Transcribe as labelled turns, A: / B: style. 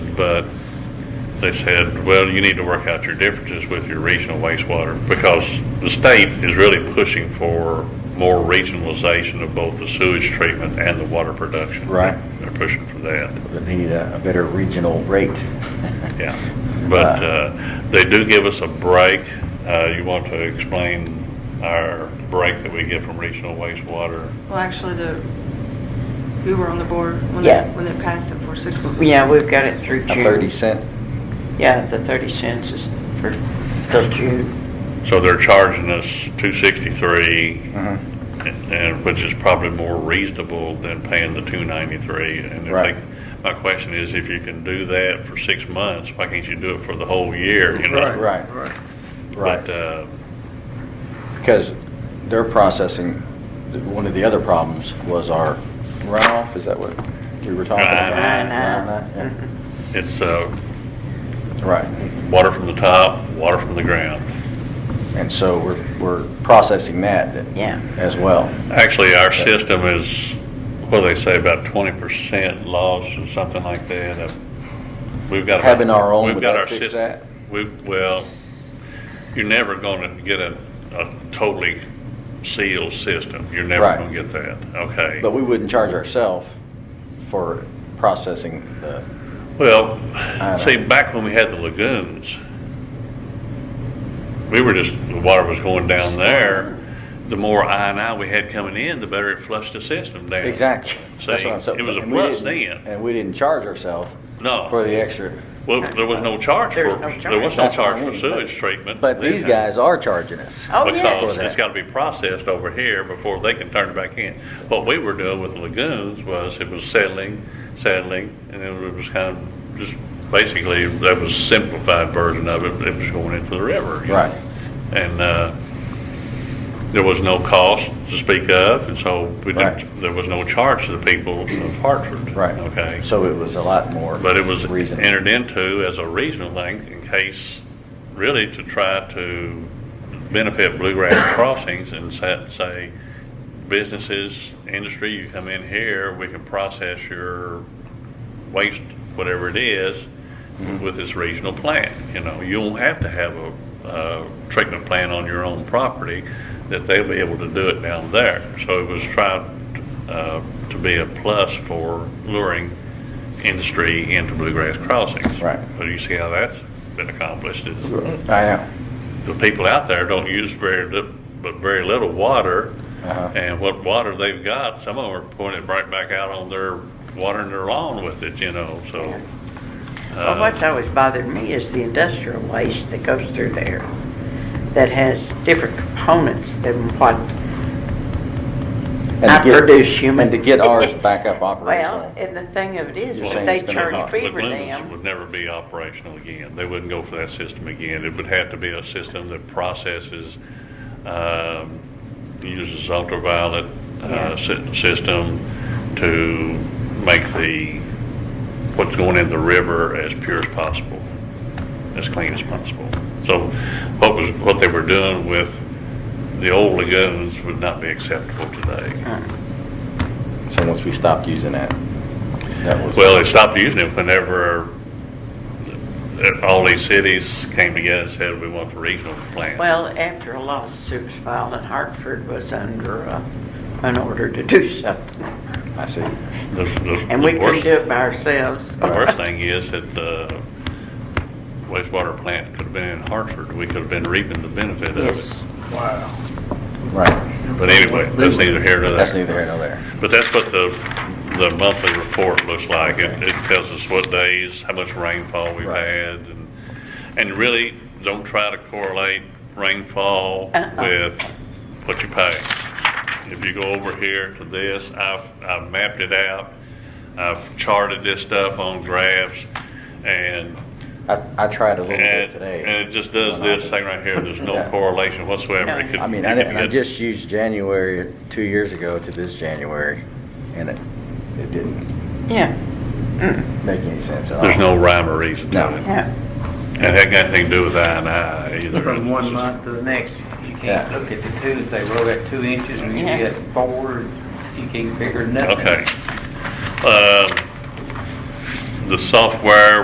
A: but they said, well, you need to work out your differences with your regional wastewater because the state is really pushing for more regionalization of both the sewage treatment and the water production.
B: Right.
A: They're pushing for that.
B: But they need a, a better regional rate.
A: Yeah, but uh, they do give us a break. Uh, You want to explain our break that we get from regional wastewater?
C: Well, actually, the, you were on the board when
D: Yeah.
C: it, when it passed at 460.
D: Yeah, we've got it through June.
B: A thirty cent.
D: Yeah, the 30 cents is for, till June.
A: So they're charging us 263,
B: Mhm.
A: and- and, which is probably more reasonable than paying the 293. And if
B: Right.
A: they- my question is, if you can do that for six months, why can't you do it for the whole year, you know?
B: Right.
E: Right.
B: Right.
A: But, uh,
B: Because they're processing, one of the other problems was our runoff, is that what we were talking about?
A: Right.
B: Right, right,
D: Mhm.
A: it's uh,
B: yeah. Right,
A: water from the top, water from the ground.
B: and so we're, we're processing that
D: Yeah.
B: as well.
A: Actually, our system is, what do they say, about twenty percent loss or something like that. Uh, We've got.
B: Having our own,
A: we've
B: would
A: got
B: that
A: our
B: fix
A: system-
B: that?
A: We, well, you're never gonna get a, a totally sealed system. You're never
B: Right.
A: gonna get that, okay?
B: But we wouldn't charge ourselves for processing the,
A: Well,
B: don't
A: see,
B: know.
A: back when we had the lagoons, we were just, the water was going down there. The more I and I we had coming in, the better it flushed the system down.
B: exactly. That's
A: See,
B: what I'm saying.
A: it was a
B: And we
A: plus
B: didn't-
A: then.
B: And we didn't charge ourselves
A: No.
B: for the extra.
A: Well, there was no charge for,
D: There's no
A: there was no
B: That's what I
A: charge for
B: mean,
A: sewage
B: but-
A: treatment.
B: But these guys are charging us.
D: Oh, yeah.
A: Because
B: For
A: it's
B: that.
A: gotta be processed over here before they can turn it back in. What we were doing with the lagoons was it was settling, settling, and it was kind of just, basically, that was simplified version of it, but it was going into the river. you know?
B: Right.
A: And, uh, there was no cost to speak of, and so we
B: Right.
A: didn't, there was no charge to the people of Hartford.
B: Right.
A: Okay.
B: So it was a lot more.
A: But it was
B: reasonable.
A: entered into as a regional thing in case, really to try to benefit Bluegrass Crossings and sa- say, businesses, industry, you come in here, we can process your waste, whatever it is,
B: Mm-hmm.
A: with this regional plant. You know, you don't have to have a, uh treatment plant on your own property, that they'll be able to do it down there. So it was tried, uh, to be a plus for luring industry into Bluegrass Crossings.
B: Right.
A: So you see how that's been accomplished, is
B: I know.
A: the people out there don't use very, li- but very little water.
B: Uh-huh.
A: And what water they've got, some of them are pouring it right back out on their, watering their lawn with it, you know, so. Uh,
D: Well, what's always bothered me is the industrial waste that goes through there that has different components than what
B: And
D: I
B: to get-
D: produce human.
B: And to get ours back up operational.
D: Well, and the thing of it is,
B: You're
D: if
B: saying
D: they
B: it's gonna
D: charge
B: cost-
D: fee for
A: Lagoons
D: them.
A: Would never be operational again. They wouldn't go for that system again. It would have to be a system that processes, um, uses ultraviolet,
D: Yeah.
A: uh, sy- system to make the, what's going in the river as pure as possible, as clean as possible. So what was, what they were doing with the old lagoons would not be acceptable today.
D: uh,
B: So once we stopped using that, that was.
A: Well, they stopped using it whenever uh, all these cities came together and said, we want the regional plan.
D: Well, after a lawsuit was filed and Hartford was under uh, an order to do something.
B: I see.
A: The- the-
D: And
A: the
D: we couldn't
A: worst-
D: do it by ourselves.
A: The worst thing is that the wastewater plant could have been in Hartford. We could have been reaping the benefit of it.
D: Yes.
E: Wow.
B: Right.
A: But anyway, that's neither here nor
B: That's
A: there.
B: neither here nor there.
A: But that's what the, the monthly report looks like. It, it tells us what days, how much rainfall we've
B: Right.
A: had, and, and really, don't try to correlate rainfall
D: Uh-uh.
A: with what you pay. If you go over here to this, I've, I've mapped it out, I've charted this stuff on graphs, and
B: I, I tried a little bit
A: and,
B: today.
A: and it just does this thing right here, there's no
B: Yeah.
A: correlation whatsoever.
D: No.
A: It could-
B: I mean,
A: you
B: I,
A: could
B: didn't- I
A: get-
B: just used January two years ago to this January, and it, it didn't
D: Yeah, Mm.
B: make any sense at all.
A: There's no rhyme or reason
B: uh, No.
A: to it.
D: yeah.
A: It had nothing to do with I and I either.
F: From one month to the next, you can't
B: Yeah.
F: look at the two, if they roll at two inches, or you
D: Yeah.
F: get four, you can't figure nothing.
A: Okay. Um, Uh, The software